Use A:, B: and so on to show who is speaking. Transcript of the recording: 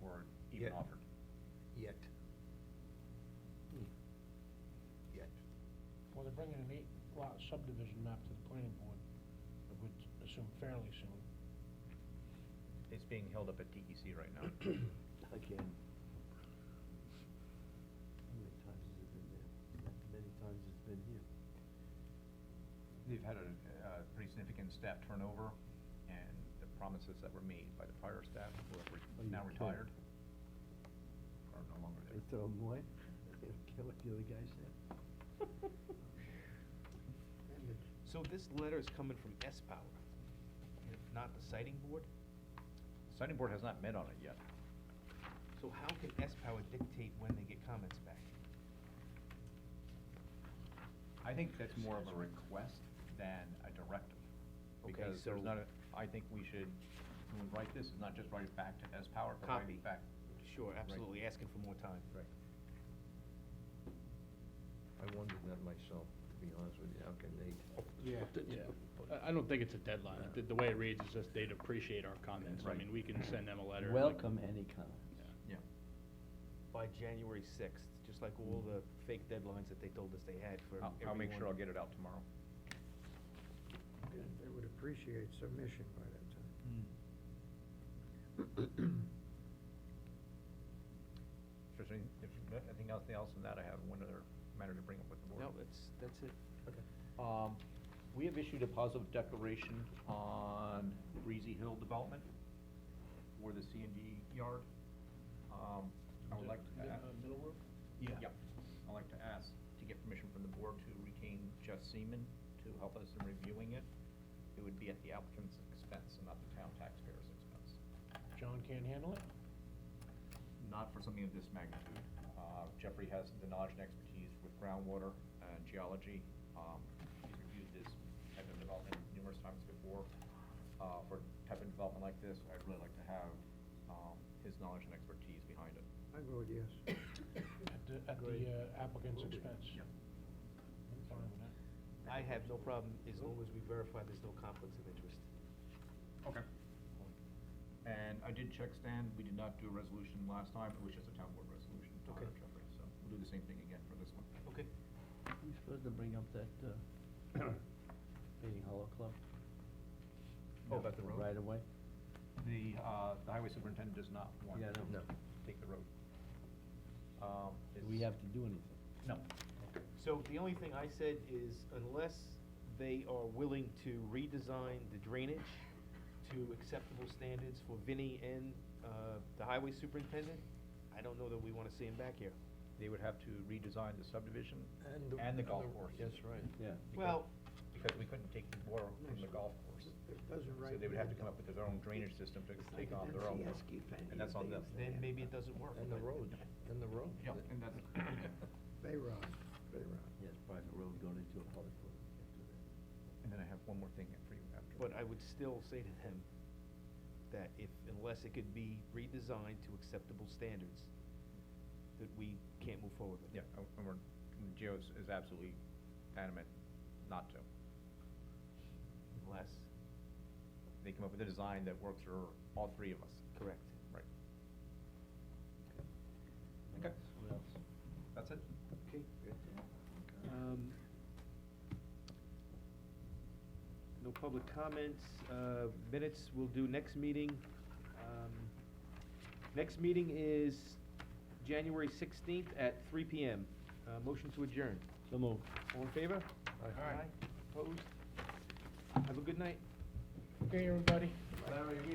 A: were even
B: Yeah.
A: offered.
B: Yet. Yet.
C: Well, they're bringing an eight lot subdivision map to the planning board, I would assume fairly soon.
A: It's being held up at DEC right now.
B: Again. How many times has it been there? Not many times it's been here.
A: They've had a, uh pretty significant staff turnover, and the promises that were made by the prior staff who are
B: Oh,
A: re-
B: you
A: now
B: can't.
A: retired are no longer
B: They
A: there.
B: throw them away, they don't care what the other guy said.
D: So this letter is coming from S Power, not the sighting board?
A: Signing board has not met on it yet.
D: So how can S Power dictate when they get comments back?
A: I think that's more of a request than a directive.
D: Okay,
A: Because there's
D: so-
A: not, a- I think we should, when we write this, is not just write it back to S Power, but write
D: Copy.
A: it back.
D: Sure,
A: Right.
D: absolutely, asking for more time.
A: Right.
B: I wondered that myself, to be honest with you, how can they?
E: Yeah, yeah. I, I don't think it's a deadline. The, the way it reads is just they'd appreciate our comments. I
A: Right.
E: mean, we can send them a letter. like-
B: Welcome any comment.
E: Yeah.
A: Yeah.
D: By January sixth, just like all the fake deadlines that they told us they had for
A: I'll,
D: everyone.
A: I'll make sure I'll get it out tomorrow.
F: They would appreciate submission by that time.
A: If there's any, if there's anything else, else than that, I have one other matter to bring up with the board.
D: No, that's, that's it.
A: Um, we have issued a positive declaration on Breezy Hill Development for the C and D yard. Um, I would like to
C: Yeah,
A: ask.
C: uh, Middle Road?
A: Yeah. I'd like to ask to get permission from the board to retain Jeff Seaman to help us in reviewing it. It would be at the applicant's expense and not the town taxpayer's expense.
C: John can't handle it?
A: Not for something of this magnitude. Uh, Jeffrey has the knowledge and expertise with groundwater and geology. Um, He's reviewed this type of development numerous times before. Uh, For type of development like this, I'd really like to have um, his knowledge and expertise behind it.
F: I vote yes.
C: At the, at the uh, applicant's expense?
A: Yeah.
C: I'm fine with that.
D: I have no problem, as long as we verify there's no conflicts of interest.
A: Okay. And I did check Stan, we did not do a resolution last time, it was just a town board resolution to hire
D: Okay.
A: Jeffrey, so we'll do the same thing again for this one.
D: Okay.
B: Who's supposed to bring up that, uh, Painting Hollow Club?
A: Oh, about the road?
B: Right away?
A: The, uh, the highway superintendent does not want
B: Yeah, I
A: to
B: don't know.
A: take the road. Um,
B: Do
A: it's-
B: we have to do anything?
A: No.
D: So the only thing I said is unless they are willing to redesign the drainage to acceptable standards for Vinnie and, uh, the highway superintendent, I don't know that we wanna see him back here.
A: They would have to redesign the subdivision
F: And the-
A: and the golf course.
F: That's right.
B: Yeah.
D: Well,
A: Because we couldn't take the water from the golf course.
F: It doesn't
A: So
F: write.
A: they would have to come up with their own drainage system to take on their own. And that's on them.
D: then maybe it doesn't work.
F: And the road, and the road.
A: Yeah, and that's.
F: They run, they run.
B: Yes, private road going into a public road. after that.
A: And then I have one more thing for you after.
D: But I would still say to them that if, unless it could be redesigned to acceptable standards, that we can't move forward with it.
A: Yeah, oh, and we're, and Gio is- is absolutely adamant not to.
D: Unless,
A: They come up with a design that works for all three of us.
D: correct.
A: Right.
B: What
A: Okay.
B: else? What else?
A: That's it.
D: Okay.
B: Um,
D: No public comments, uh, minutes we'll do next meeting. Um, Next meeting is January sixteenth at three PM. Uh, motion to adjourn.
B: So move.
D: All in favor?
F: Aye.
D: Opposed? Have a good night.
C: Okay, everybody?
D: Larry, we